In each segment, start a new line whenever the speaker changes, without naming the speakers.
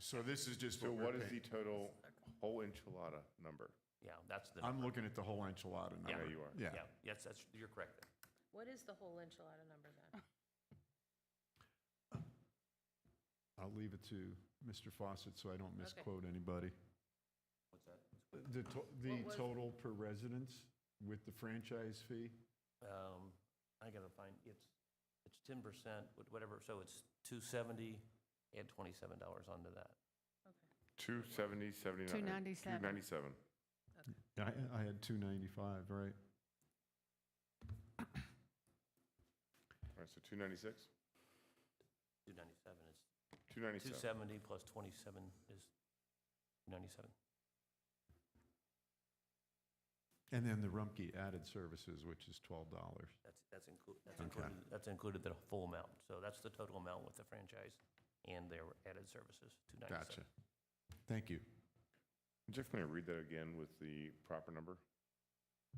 So this is just
So
what
what
we're
is the
paying.
total whole enchilada number?
Yeah, that's the,
I'm looking at the whole enchilada
Yeah.
number.
Yeah,
you are.
Yeah.
yeah, yes, that's, you're correct.
What is the whole enchilada number then?
I'll leave it to Mr. Fawcett so I don't misquote anybody.
What's that?
The, to- the
What was-
total per residence with the franchise fee?
Um, I gotta find, it's, it's ten percent, whatever, so it's two seventy, add twenty-seven dollars onto that.
Two seventy, seventy-nine.
297.
Two ninety-seven.
I, I had 295, right?
All right, so two ninety-six,
Two ninety-seven is,
two
two
ninety-seven.
seventy plus twenty-seven is ninety-seven.
And then the Rumpke added services, which is $12.
That's, that's included, that's
Okay.
included, that's included the full amount. So that's the total amount with the franchise and their added services, two
Gotcha.
ninety-seven.
Thank you.
Jeff, can I read that again with the proper number?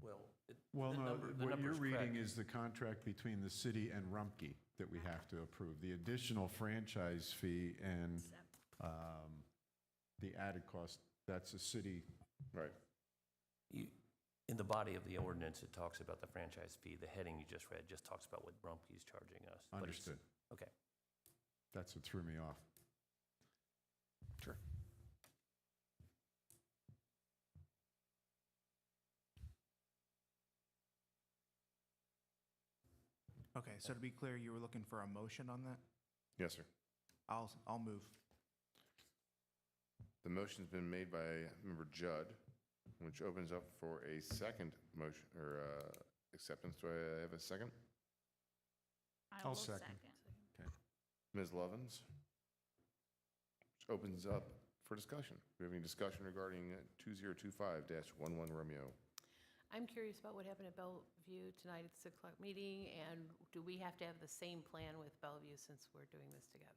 Well, it-
Well,
the
no,
number, the
what you're
number's
reading
correct.
is the contract between the city and Rumpke that we have to approve. The additional franchise fee and um, the added cost, that's a city,
Right.
You- In the body of the ordinance, it talks about the franchise fee. The heading you just read just talks about what Rumpke's charging us. but it's-
understood.
Okay.
That's what threw me off. Sure.
Okay, so to be clear, you were looking for a motion on that?
Yes, sir.
I'll, I'll move.
The motion's been made by Member Judd, which opens up for a second motion or uh, acceptance. Do I have a second?
I
I'll
will
second. Okay.
Ms. Lovins? Which opens up for discussion. Do we have any discussion regarding uh, 2025-11 Romeo?
I'm curious about what happened at Bellevue tonight at the 6 o'clock meeting, and do we have to have the same plan with Bellevue since we're doing this together?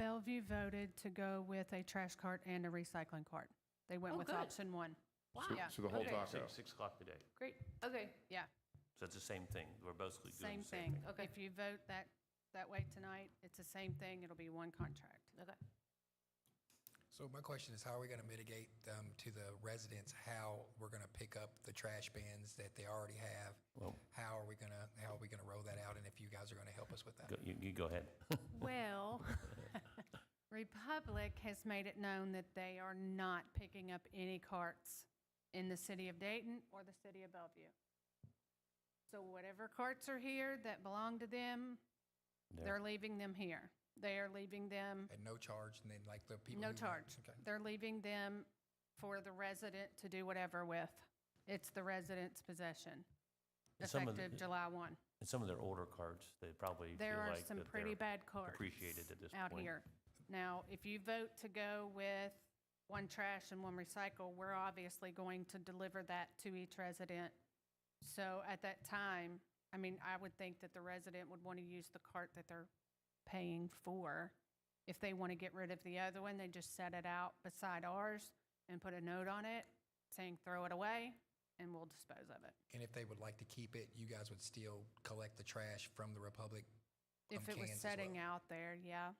Bellevue voted to go with a trash cart and a recycling cart. They went
Oh,
with
good.
option one.
So-
Yeah.
So the whole
Okay.
taco.
Six, six o'clock today.
Great, okay,
Yeah,
So it's the same thing. We're basically doing the
same
same
thing.
thing.
Okay.
If you vote that, that way tonight, it's the same thing. It'll be one contract.
okay.
So my question is, how are we going to mitigate um, to the residents how we're going to pick up the trash bins that they already have? How are we going to, how are we going to roll that out? And if you guys are going to help us with that?
Go- You, you go ahead.
Well, Republic has made it known that they are not picking up any carts in the city of Dayton or the city of Bellevue. So whatever carts are here that belong to them, they're leaving them here. They are leaving them,
At no charge, and then like the people.
no
who-
charge.
Okay.
They're leaving them for the resident to do whatever with. It's the resident's possession,
Some of the-
effective July 1.
And some of their older cards, they probably feel
There are
like
some
that
pretty
they're
bad cards
appreciated at this
out
point.
here. Now, if you vote to go with one trash and one recycle, we're obviously going to deliver that to each resident. So at that time, I mean, I would think that the resident would want to use the cart that they're paying for. If they want to get rid of the other one, they just set it out beside ours and put a note on it saying, throw it away, and we'll dispose of it.
And if they would like to keep it, you guys would still collect the trash from the Republic?
If
from
it was
cans as
setting
well?
out there, yeah.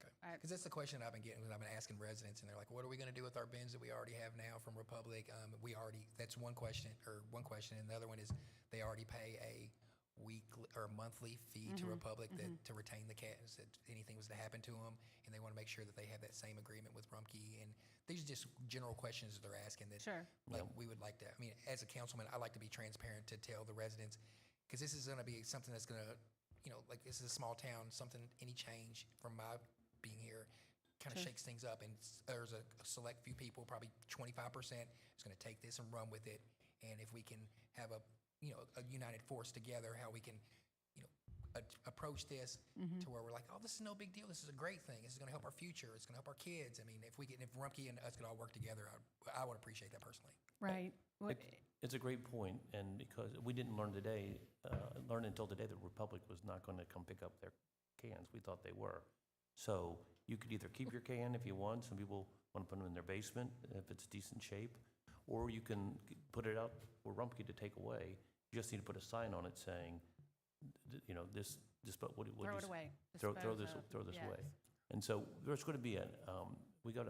Okay.
I-
Because that's the question I've been getting, when I've been asking residents, and they're like, what are we going to do with our bins that we already have now from Republic? Um, We already, that's one question, or one question, and the other one is, they already pay a weekly or monthly fee to Republic that, to retain the cats, that anything was to happen to them, and they want to make sure that they have that same agreement with Rumpke, and these are just general questions that they're asking that.
Sure.
Like, we would like to, I mean, as a councilman, I like to be transparent to tell the residents, because this is going to be something that's going to, you know, like, this is a small town, something, any change from my being here kind of shakes things up, and s- there's a a select few people, probably 25%, is going to take this and run with it, and if we can have a, you know, a united force together, how we can, you know, a- approach this to where we're like, oh, this is no big deal. This is a great thing. This is going to help our future. It's going to help our kids. I mean, if we can, if Rumpke and us could all work together, I, I would appreciate that personally.
Right.
It- It's a great point, and because we didn't learn today, uh, learn until today that Republic was not going to come pick up their cans. We thought they were. So you could either keep your can if you want, some people want to put them in their basement if it's decent shape, or you can put it out for Rumpke to take away. You just need to put a sign on it saying, th- you know, this, this, but what do you
Throw it
say?
away.
Throw, throw this,
Dispose of,
throw this away.
yes.
And so there's going to be a, um, we got a